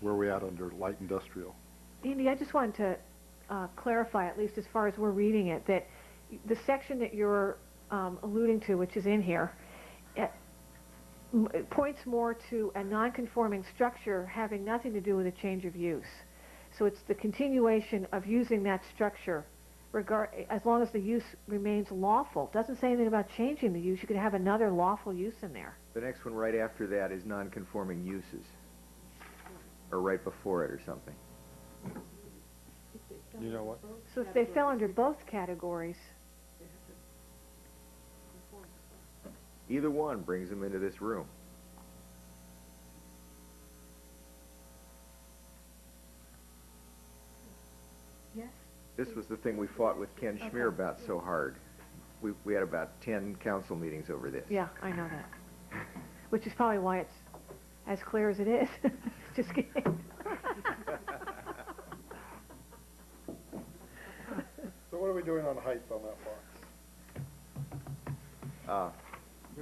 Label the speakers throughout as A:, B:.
A: where are we at under light industrial?
B: Andy, I just wanted to uh, clarify, at least as far as we're reading it, that the section that you're um, alluding to, which is in here, it m- it points more to a nonconforming structure having nothing to do with a change of use. So it's the continuation of using that structure regard, as long as the use remains lawful. Doesn't say anything about changing the use. You could have another lawful use in there.
C: The next one right after that is non-conforming uses, or right before it or something.
A: You know what?
B: So if they fell under both categories,
C: Either one brings them into this room.
B: Yes.
C: This was the thing we fought with Ken Schmier about so hard. We, we had about ten council meetings over this.
B: Yeah, I know that. Which is probably why it's as clear as it is. Just kidding.
D: So what are we doing on height on that box? What
C: Uh,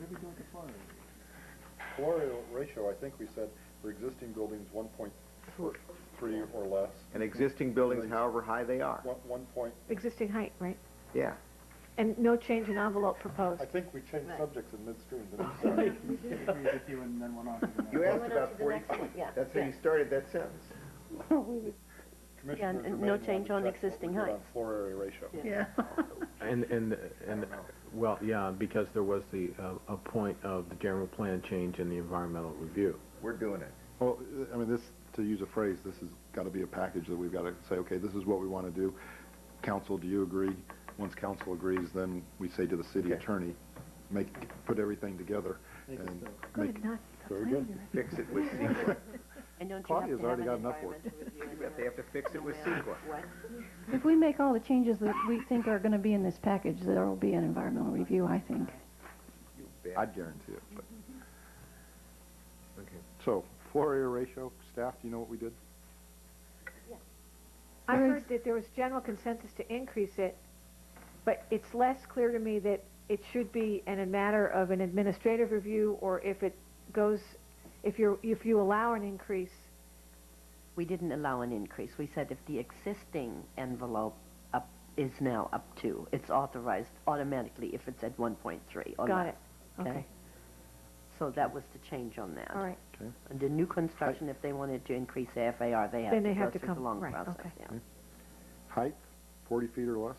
D: are we doing with floor area? ratio, I think we said for existing buildings, one point three or less.
C: and existing buildings, however high they are.
D: One, one point,
B: Existing height, right?
C: Yeah.
B: And no change in envelope proposed.
D: I think we changed subjects in midstream, didn't we?
C: You asked
E: went on
C: about
E: to the
C: forty
E: next one, yeah,
C: That's how
E: yeah.
C: you started that sentence.
D: Commissioners
E: and no
D: may want to
E: change on
D: check what we
E: existing
D: did on
E: heights.
D: Floor area ratio.
E: Yeah.
F: And, and, and, well, yeah, because there was the, uh, a point of the general plan change in the environmental review.
C: We're doing it.
A: Well, I mean, this, to use a phrase, this has got to be a package that we've got to say, okay, this is what we want to do. Council, do you agree? Once council agrees, then we say to the city
C: Okay.
A: attorney, make, put everything together and make.
B: Good, not
A: Very good.
C: Fix it with CEQA.
E: And don't you have
A: Claudia's
E: to have
A: already
E: an
A: got enough work.
E: environmental review
C: You bet they have to fix it with CEQA.
E: What?
G: If we make all the changes that we think are gonna be in this package, there will be an environmental review, I think.
C: You bet.
A: I'd guarantee it, but.
C: Okay.
A: So, floor area ratio, staff, do you know what we did?
B: I heard that there was general consensus to increase it, but it's less clear to me that it should be in a matter of an administrative review or if it goes, if you're, if you allow an increase.
E: We didn't allow an increase. We said if the existing envelope up, is now up to, it's authorized automatically if it's at one point three or
B: Got
E: less.
B: it. Okay.
E: So that was the change on that.
B: All right.
E: And the new construction, if they wanted to increase their FAR, they
B: Then
E: have
B: they
E: to
B: have to
E: go through the
B: come-
E: long
B: right,
E: process,
B: okay.
E: yeah.
A: Height, forty feet or less?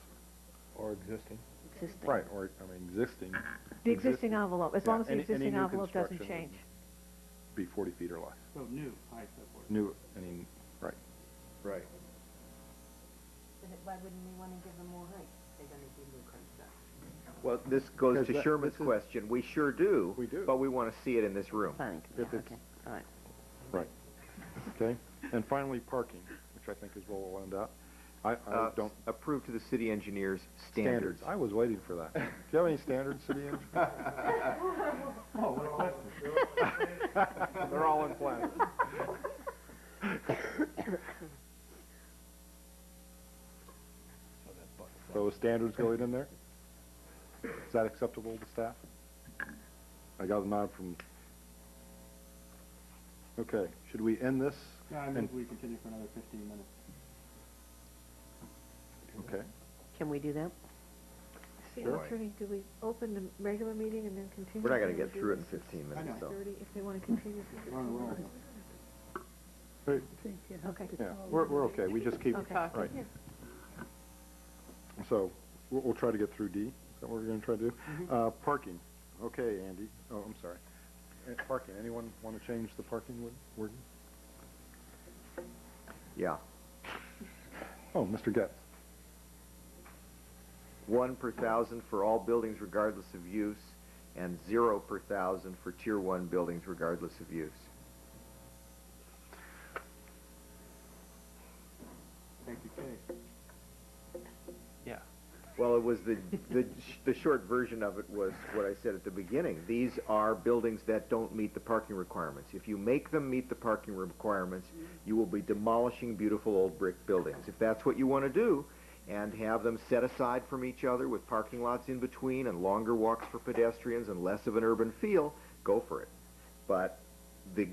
F: Or existing.
E: Existing.
A: Right, or, I mean, existing
B: The existing envelope, as
A: Yeah,
B: long as the
A: any- any
B: existing
A: new
B: envelope doesn't
A: construction
B: change.
A: be forty feet or less.
H: So Oh, new height of work.
A: New, I mean, right.
C: Right.
E: Why wouldn't we want to give them more height? They're going to do new construction.
C: Well, this goes
A: Because
C: to
A: that-
C: Sherman's
A: this is-
C: question. We sure do.
A: We do.
C: But we want to see it in this room.
E: Fine,
A: If
E: yeah,
A: it's-
E: okay, all right.
A: Right. Okay, and finally, parking, which I think is where we'll end up. I, I
C: Uh,
A: don't.
C: approve to the city engineers standards.
A: I was waiting for that. Do you have any standards, city engineer?
H: Oh,
A: They're all in plan. So the standards going in there? Is that acceptable to staff? I got a nod from, okay, should we end this?
H: No, I
A: And-
H: move we continue for another fifteen minutes.
A: Okay.
E: Can we do that?
B: City
C: Sure.
B: attorney, do we open the regular meeting and then continue?
C: We're not going
B: Or
C: to get
B: do
C: through it
B: we-
C: in 15
H: I
C: minutes,
H: know.
C: though.
B: Thirty, if they want to continue.
H: We're on a roll.
B: Okay.
A: Yeah, we're, we're okay, we just keep,
B: Okay.
A: right. So, we'll, we'll try to get through D, is that what we're gonna try to do? Uh, parking, okay, Andy, oh, I'm sorry. Uh, Parking, anyone wanna change the parking word? word?
C: Yeah.
A: Oh, Mr. Getz,
C: One per thousand for all buildings regardless of use, and zero per thousand for tier one buildings regardless of use.
H: Thank you, Kay.
C: Well, it was the, the, sh- the short version of it was what I said at the beginning. These are buildings that don't meet the parking requirements. If you make them meet the parking requirements, you will be demolishing beautiful old brick buildings. If that's what you want to do, and have them set aside from each other with parking lots in between and longer walks for pedestrians and less of an urban feel, go for it. But the